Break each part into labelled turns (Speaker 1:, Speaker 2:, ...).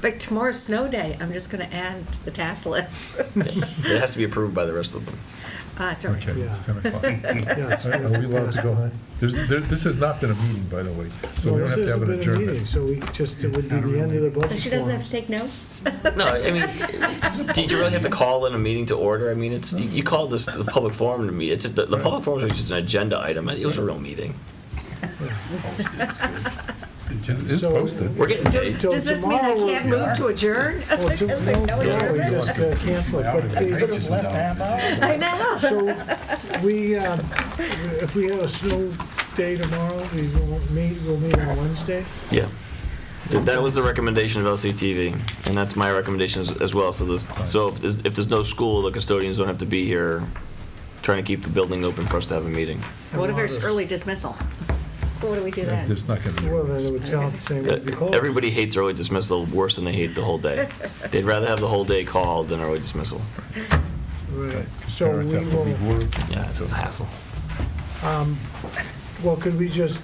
Speaker 1: But tomorrow's snow day, I'm just going to add to the task list.
Speaker 2: It has to be approved by the rest of them.
Speaker 1: Uh, it's all right.
Speaker 3: Okay, it's 10 o'clock.
Speaker 4: it's-
Speaker 3: Are are we allowed to go home? There's, there, this has not been a meeting, by the way, so we don't
Speaker 4: Well, this
Speaker 3: have to have
Speaker 4: hasn't
Speaker 3: an
Speaker 4: been a meeting,
Speaker 3: adjournment.
Speaker 4: So we just, it would be the end of the budget.
Speaker 1: So she doesn't
Speaker 4: forum.
Speaker 1: have to take notes?
Speaker 2: No, I mean, did you really have to call in a meeting to order? I mean, it's, you you called this the public forum to meet. It's, the, the public forum was just an agenda item. It was a real meeting.
Speaker 3: It is
Speaker 4: So-
Speaker 3: posted.
Speaker 2: We're getting paid.
Speaker 4: Till
Speaker 1: Does this mean I
Speaker 4: tomorrow-
Speaker 1: can't move to adjourn?
Speaker 4: Well,
Speaker 1: Because
Speaker 4: to-
Speaker 1: there's
Speaker 4: no,
Speaker 1: no
Speaker 4: no, we
Speaker 1: adjournment?
Speaker 4: just uh, cancel it, but they-
Speaker 1: I know.
Speaker 4: So we, um, if we have a snow day tomorrow, we won't meet, we'll meet on Wednesday.
Speaker 2: Yeah. Th- That was the recommendation of LCTV, and that's my recommendation as- as well. So this, so if there's, if there's no school, the custodians don't have to be here trying to keep the building open for us to have a meeting.
Speaker 1: What if there's early dismissal? What do we do then?
Speaker 3: There's not going to be.
Speaker 4: Well, then it would tell the same, it'd be closed.
Speaker 2: Uh, Everybody hates early dismissal worse than they hate the whole day. They'd rather have the whole day called than early dismissal.
Speaker 4: Right. So
Speaker 3: Parents
Speaker 4: we
Speaker 3: have to
Speaker 4: will,
Speaker 3: leave work.
Speaker 2: Yeah, it's a hassle.
Speaker 4: well, could we just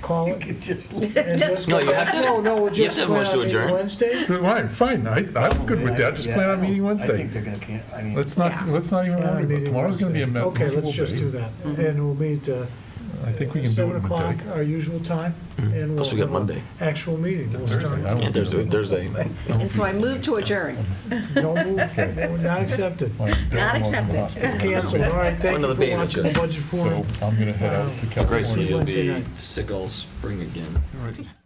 Speaker 4: call it? and just
Speaker 2: No,
Speaker 4: go
Speaker 2: you have
Speaker 4: back?
Speaker 2: to-
Speaker 4: No, no, we'll
Speaker 2: you have
Speaker 4: just
Speaker 2: to
Speaker 4: plan
Speaker 2: motion
Speaker 4: on
Speaker 2: to
Speaker 4: meeting
Speaker 2: adjourn.
Speaker 4: Wednesday.
Speaker 3: But Fine, fine, I, I'm good with that, just plan on meeting
Speaker 5: I think
Speaker 3: Wednesday.
Speaker 5: they're gonna, can- I mean.
Speaker 3: Let's not,
Speaker 1: Yeah.
Speaker 3: let's not even
Speaker 4: Yeah,
Speaker 3: worry about,
Speaker 4: meeting
Speaker 3: tomorrow's going to be a
Speaker 4: Wednesday.
Speaker 3: mem-
Speaker 4: Okay, let's just do
Speaker 3: miserable day.
Speaker 4: that,
Speaker 2: Mm-hmm.
Speaker 4: and we'll meet, uh,
Speaker 3: I think we can do it
Speaker 4: Seven
Speaker 3: in a
Speaker 4: o'clock,
Speaker 3: day.
Speaker 4: our usual time, and we'll
Speaker 2: Mm-hmm. Plus we got
Speaker 4: have
Speaker 2: Monday.
Speaker 4: an actual meeting. We'll
Speaker 3: Thursday, I
Speaker 4: start.
Speaker 3: won't
Speaker 2: Yeah,
Speaker 3: be
Speaker 2: Thursday,
Speaker 3: available.
Speaker 2: Thursday.
Speaker 1: And so I move to adjourn.
Speaker 4: No move, no, not accepted.
Speaker 3: Well, I'm
Speaker 1: Not
Speaker 3: in the
Speaker 1: accepted.
Speaker 3: hospital.
Speaker 4: It's canceled, all right, thank
Speaker 2: Another
Speaker 4: you for
Speaker 2: meeting,
Speaker 4: watching the
Speaker 2: okay.
Speaker 4: budget
Speaker 3: So
Speaker 4: forum.
Speaker 3: I'm going to head out to California.
Speaker 2: Great, so you'll
Speaker 4: Wednesday
Speaker 2: be
Speaker 4: night.
Speaker 2: sick all spring again.